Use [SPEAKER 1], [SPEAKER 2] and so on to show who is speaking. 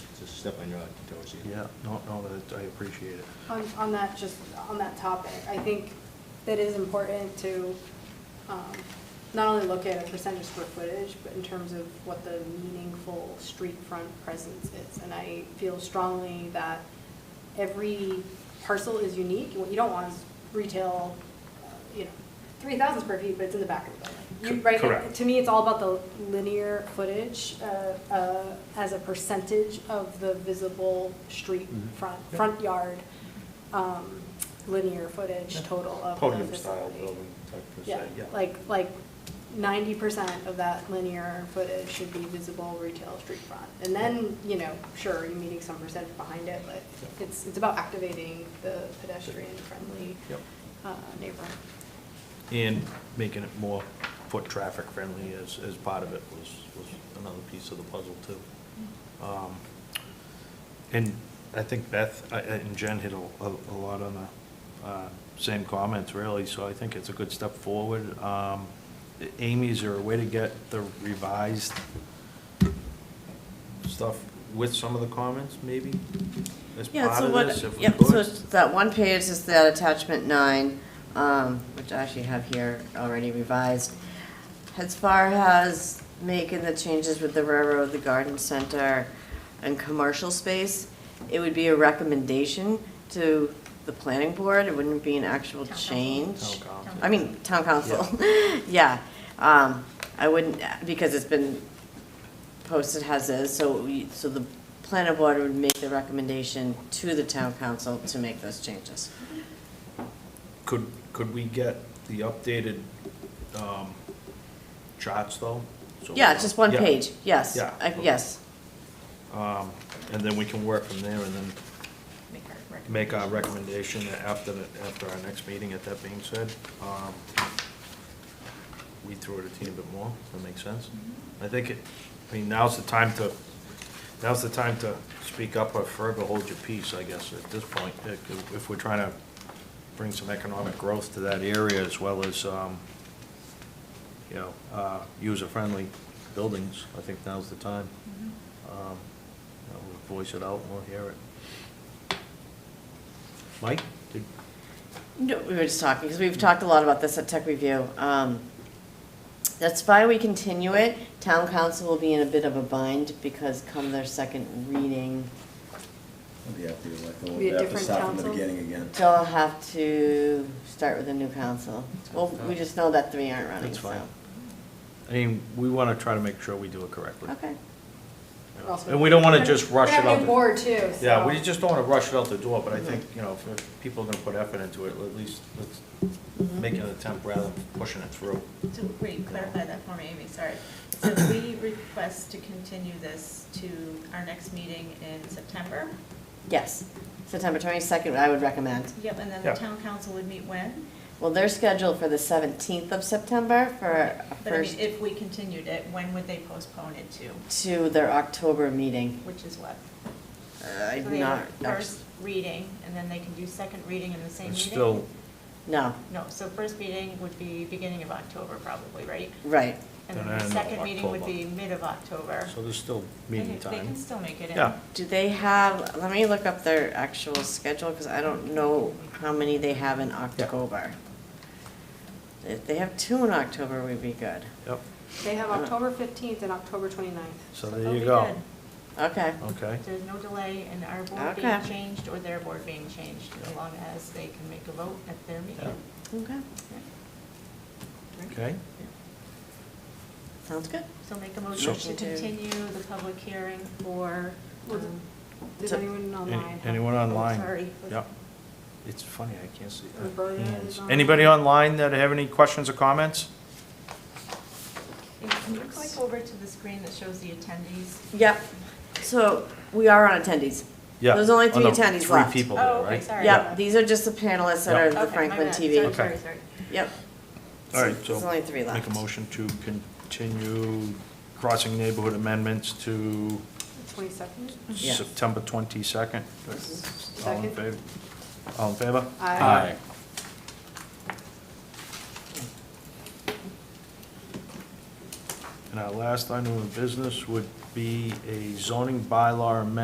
[SPEAKER 1] step on your toes here.
[SPEAKER 2] Yeah, no, no, that- I appreciate it.
[SPEAKER 3] On, on that, just on that topic, I think that is important to um, not only look at a percentage square footage, but in terms of what the meaningful street front presence is. And I feel strongly that every parcel is unique, and what you don't want is retail, uh, you know, three thousand square feet, but it's in the back of the building. You-
[SPEAKER 4] Co-
[SPEAKER 3] right,
[SPEAKER 4] correct.
[SPEAKER 3] To me, it's all about the linear footage uh, uh, as a percentage of the visible street
[SPEAKER 2] Mhm.
[SPEAKER 3] front, front yard, um, linear footage total of the
[SPEAKER 1] Podium style
[SPEAKER 3] facility.
[SPEAKER 1] building type per
[SPEAKER 3] Yeah,
[SPEAKER 1] se, yeah.
[SPEAKER 3] like, like ninety percent of that linear footage should be visible retail street front. And then, you know, sure, you're meeting some percentage behind it, but it's, it's about activating the pedestrian-friendly
[SPEAKER 2] Yep.
[SPEAKER 3] uh, neighborhood.
[SPEAKER 2] And making it more foot traffic friendly as, as part of it was, was another piece of the puzzle too. Um, And I think Beth I- I- and Jen hit a, a a lot on the uh, same comments really, so I think it's a good step forward. Um, Amy, is there a way to get the revised stuff with some of the comments maybe? As
[SPEAKER 5] Yeah,
[SPEAKER 2] part
[SPEAKER 5] so
[SPEAKER 2] of
[SPEAKER 5] what,
[SPEAKER 2] this, if we
[SPEAKER 5] yeah, so
[SPEAKER 2] could?
[SPEAKER 5] it's that one page is that attachment nine, um, which I actually have here already revised. As far as making the changes with the railroad, the garden center, and commercial space, it would be a recommendation to the planning board, it wouldn't be an actual
[SPEAKER 6] council.
[SPEAKER 2] Town
[SPEAKER 5] change.
[SPEAKER 2] council.
[SPEAKER 5] I mean, town council, yeah. Um, I wouldn't, because it's been posted as is, so, we- so the planning board would make the recommendation to the town council to make those changes.
[SPEAKER 2] Could, could we get the updated um, charts, though? So-
[SPEAKER 5] Yeah, just one page, yes,
[SPEAKER 2] Yeah.
[SPEAKER 5] I- yes.
[SPEAKER 2] Um, And then we can work from there and then
[SPEAKER 6] Make
[SPEAKER 2] make
[SPEAKER 6] our recommendation.
[SPEAKER 2] our recommendation after, the- after our next meeting, if that being said. Um, Read through it a teeny bit more, if that makes sense.
[SPEAKER 6] Mm-hmm.
[SPEAKER 2] I think, it. I mean, now's the time to, now's the time to speak up or further hold your peace, I guess, at this point. If if we're trying to bring some economic growth to that area as well as, um, you know, uh, user-friendly buildings, I think now's the time.
[SPEAKER 6] Mm-hmm.
[SPEAKER 2] Um, you know, We'll voice it out, and we'll hear it. Mike? did-
[SPEAKER 5] No, we were just talking, because we've talked a lot about this at tech review. Um, That's why we continue it. Town council will be in a bit of a bind because come their second reading,
[SPEAKER 7] We'll be up there, like, we'll
[SPEAKER 3] Be a
[SPEAKER 7] have to
[SPEAKER 3] different
[SPEAKER 7] start from the
[SPEAKER 3] council?
[SPEAKER 7] beginning again.
[SPEAKER 5] they'll have to start with a new council. Well, we just know that three aren't running,
[SPEAKER 2] That's
[SPEAKER 5] so.
[SPEAKER 2] fine. I mean, we want to try to make sure we do it correctly.
[SPEAKER 5] Okay.
[SPEAKER 2] you know.
[SPEAKER 3] Also-
[SPEAKER 2] And we don't want to just rush
[SPEAKER 3] We're
[SPEAKER 2] it
[SPEAKER 3] gonna have a
[SPEAKER 2] out.
[SPEAKER 3] new
[SPEAKER 2] the-
[SPEAKER 3] board too, so.
[SPEAKER 2] Yeah, we just don't want to rush it out the door, but I think, you know, if- if people are going to put effort into it, at least let's
[SPEAKER 6] Mm-hmm.
[SPEAKER 2] make an attempt rather than pushing it through.
[SPEAKER 6] So, wait, clarify that for me, Amy, sorry. So we request to continue this to our next meeting in September?
[SPEAKER 5] Yes, September 22nd, I would recommend.
[SPEAKER 6] Yep, and then
[SPEAKER 2] Yeah.
[SPEAKER 6] the town council would meet when?
[SPEAKER 5] Well, they're scheduled for the 17th of September for a
[SPEAKER 6] But I
[SPEAKER 5] first,
[SPEAKER 6] mean, if we continued it, when would they postpone it to?
[SPEAKER 5] to their October meeting.
[SPEAKER 6] Which is what?
[SPEAKER 5] Uh, I'm
[SPEAKER 6] Three,
[SPEAKER 5] not,
[SPEAKER 6] First reading, and then they can do second reading in the same
[SPEAKER 2] It's
[SPEAKER 6] meeting?
[SPEAKER 2] still,
[SPEAKER 5] no,
[SPEAKER 6] No, so first meeting would be beginning of October probably, right?
[SPEAKER 5] right.
[SPEAKER 6] And then
[SPEAKER 2] And
[SPEAKER 6] the
[SPEAKER 2] then
[SPEAKER 6] second meeting would
[SPEAKER 2] October.
[SPEAKER 6] be mid of October.
[SPEAKER 2] so there's still
[SPEAKER 6] They
[SPEAKER 2] meeting
[SPEAKER 6] can- They can
[SPEAKER 2] time.
[SPEAKER 6] still make it in.
[SPEAKER 2] Yeah.
[SPEAKER 5] Do they have, let me look up their actual schedule, because I don't know how many they have in October. If they have two in October, we'd be good.
[SPEAKER 2] Yep,
[SPEAKER 3] They have October 15th and October 29th.
[SPEAKER 2] so
[SPEAKER 6] They'll
[SPEAKER 2] there you
[SPEAKER 6] be
[SPEAKER 2] go.
[SPEAKER 6] good.
[SPEAKER 5] Okay,
[SPEAKER 2] Okay.
[SPEAKER 6] There's no delay in our board being
[SPEAKER 5] Okay.
[SPEAKER 6] changed or their board being changed, as long as they can make a vote at their meeting.
[SPEAKER 5] okay,
[SPEAKER 2] Okay.
[SPEAKER 5] sounds good.
[SPEAKER 6] So make a
[SPEAKER 2] So-
[SPEAKER 6] motion to continue the public hearing for,
[SPEAKER 3] Was it-
[SPEAKER 6] um,
[SPEAKER 3] Does
[SPEAKER 5] So-
[SPEAKER 3] anyone
[SPEAKER 2] Any-
[SPEAKER 3] online? have- Oh,
[SPEAKER 2] Anyone online?
[SPEAKER 6] sorry.
[SPEAKER 2] Yep. It's funny, I can't see.
[SPEAKER 3] Or voting is on.
[SPEAKER 2] Anybody online that have any questions or comments?
[SPEAKER 6] Can you click over to the screen that shows the attendees?
[SPEAKER 5] Yep, so we are on attendees.
[SPEAKER 2] Yeah.
[SPEAKER 5] There's only
[SPEAKER 2] on
[SPEAKER 5] three
[SPEAKER 2] the
[SPEAKER 5] attendees left.
[SPEAKER 2] Oh, Three people
[SPEAKER 6] Oh,
[SPEAKER 2] there,
[SPEAKER 6] okay,
[SPEAKER 2] right?
[SPEAKER 6] sorry.
[SPEAKER 5] Yep, these are just the panelists that
[SPEAKER 2] Yeah.
[SPEAKER 5] are
[SPEAKER 6] Okay,
[SPEAKER 5] the
[SPEAKER 6] my
[SPEAKER 5] Franklin
[SPEAKER 6] bad.
[SPEAKER 5] TV.
[SPEAKER 6] Sorry,
[SPEAKER 2] Okay.
[SPEAKER 6] sorry, sorry.
[SPEAKER 5] Yep,
[SPEAKER 2] All right, so.
[SPEAKER 5] There's only three left.
[SPEAKER 2] Make a motion to continue crossing neighborhood amendments to
[SPEAKER 3] 22nd?
[SPEAKER 5] Yes.
[SPEAKER 2] September 22nd. All in
[SPEAKER 3] Second.
[SPEAKER 2] favor? All in favor?
[SPEAKER 3] Aye.
[SPEAKER 2] And our last item of business would be a zoning bylaw amendment